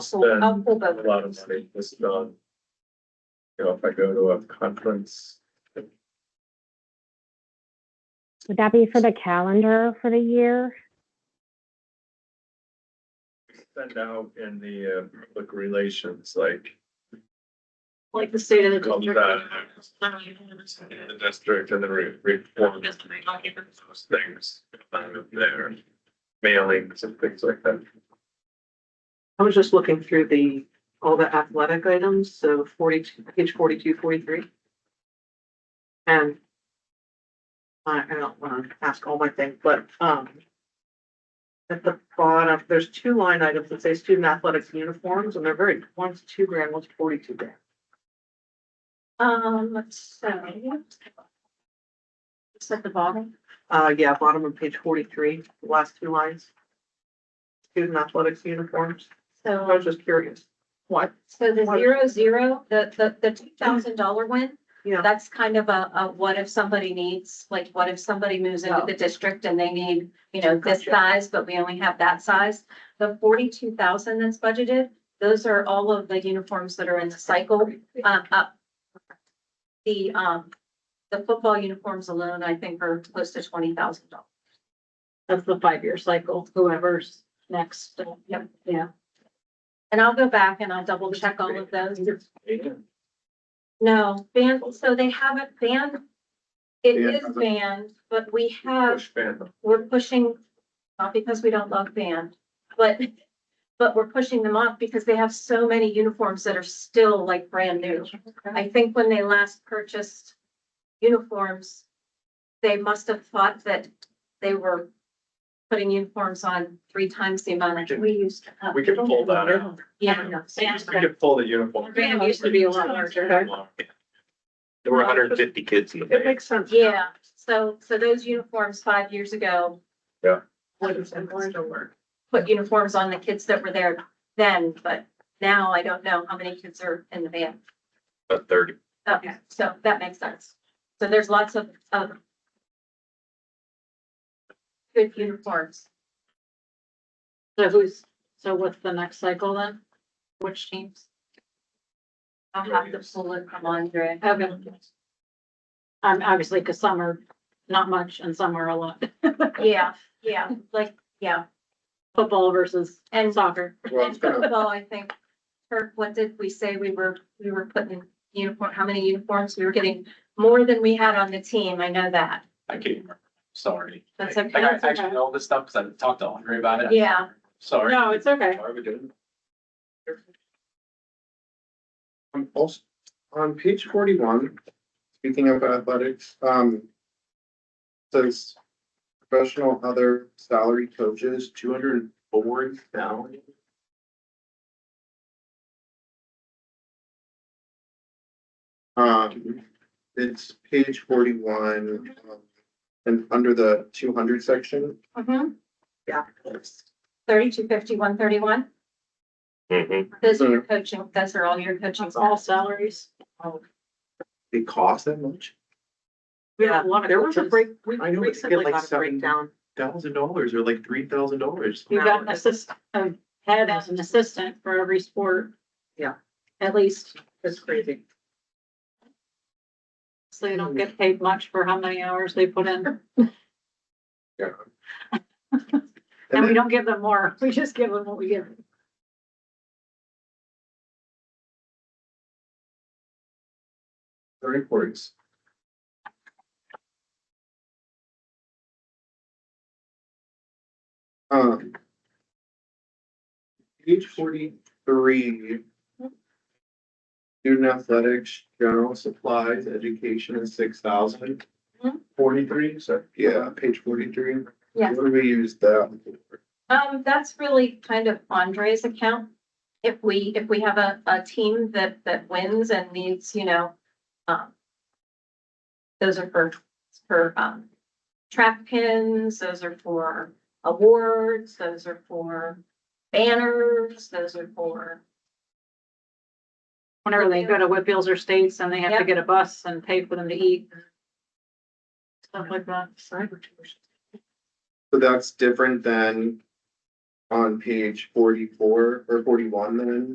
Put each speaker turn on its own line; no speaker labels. So
Then-
I'll
a
pull
lot of
the,
money was done. You know, if I go to a conference,
Would that be for the calendar for the year?
send out in the uh, public relations, like
like the state of the
Call
district.
in the district and then re- reform those things out of there. Mailings and things like that.
I was just looking through the, all the athletic items, so forty-two, page forty-two, forty-three. And I, I don't wanna ask all my things, but, um, at the bottom, there's two line items that say student athletics uniforms, and they're very, one's two grand, one's forty-two grand.
Um, so. It's at the bottom.
Uh, yeah, bottom of page forty-three, the last two lines. Student athletics uniforms, I
So,
was just curious. What?
so the
What-
zero, zero, the, the, the two thousand dollar one,
Yeah,
that's kind of a, a what if somebody needs, like, what if somebody moves into
Oh.
the district and they need, you know, this
Gotcha.
size, but we only have that size. The forty-two thousand that's budgeted, those are all of the uniforms that are in the cycle, um, up. The, um, the football uniforms alone, I think, are close to twenty thousand dollars.
That's the five-year cycle, whoever's next.
uh, Yep.
Yeah.
And I'll go back and I'll double check all of those.
And
No, band, so they haven't banned. It is banned, but we have,
Push fan.
we're pushing, not because we don't love band, but, but we're pushing them off because they have so many uniforms that are still like brand new. I think when they last purchased uniforms, they must have thought that they were putting uniforms on three times the amount that we used to have.
We could pull that out.
Yeah, no, so
We could pull the uniform.
Band
used to be a lot larger.
There were hundred and fifty kids in the
it
band.
makes sense. now.
Yeah, so, so those uniforms five years ago,
What is it, what is it work?
put uniforms on the kids that were there then, but now I don't know how many kids are in the van.
about thirty.
Okay, so that makes sense. So there's lots of, of good uniforms.
So who's, so what's the next cycle then? Which teams?
I'll have to pull it from Andre.
Okay. Um, obviously, because some are not much and some are a lot.
Yeah, yeah, like, yeah.
Football versus
And
soccer.
Well, it's kind of-
Well, I think, Kirk, what did we say? We were, we were putting in uniform, how many uniforms? We were getting more than we had on the team. I know that.
I can't remember, sorry.
That's
Like,
okay.
I actually know all this stuff because I talked to Andre about it.
Yeah.
Sorry.
No, it's okay.
Sorry, we didn't.
Um, also, on page forty-one, speaking of athletics, um. Says professional other salary coaches, two hundred boards down. Um, it's page forty-one, um, and under the two hundred section,
Mm-hmm.
Yeah.
Thirty-two fifty, one thirty-one.
Mm-hmm.
Those are your coaching, those are all your coaching.
It's all salaries.
it costs that much,
We have a lot of
There was a
coaches.
break, we
I know, but they get
recently
like
got a
seven-
breakdown.
thousand dollars or like three thousand dollars.
You've got an assistant, a head as an assistant for every sport.
Yeah.
At least,
It's crazy.
so they don't get paid much for how many hours they put in. And we don't give them more. We just give them what we give. them.
The reports. Um. Page forty-three. Student athletics, general supplies, education is six thousand.
Mhm.
Forty-three, so, yeah, page forty-three.
Yes.
What do we use that? for?
Um, that's really kind of Andre's account. If we, if we have a, a team that, that wins and needs, you know, um, those are for, for, um, track pins, those are for awards, those are for banners, those are for,
Whenever they go to Whitfields or States and they have to
Yep.
get a bus and pay for them to eat. and Stuff like that.
So that's different than on page forty-four or forty-one then,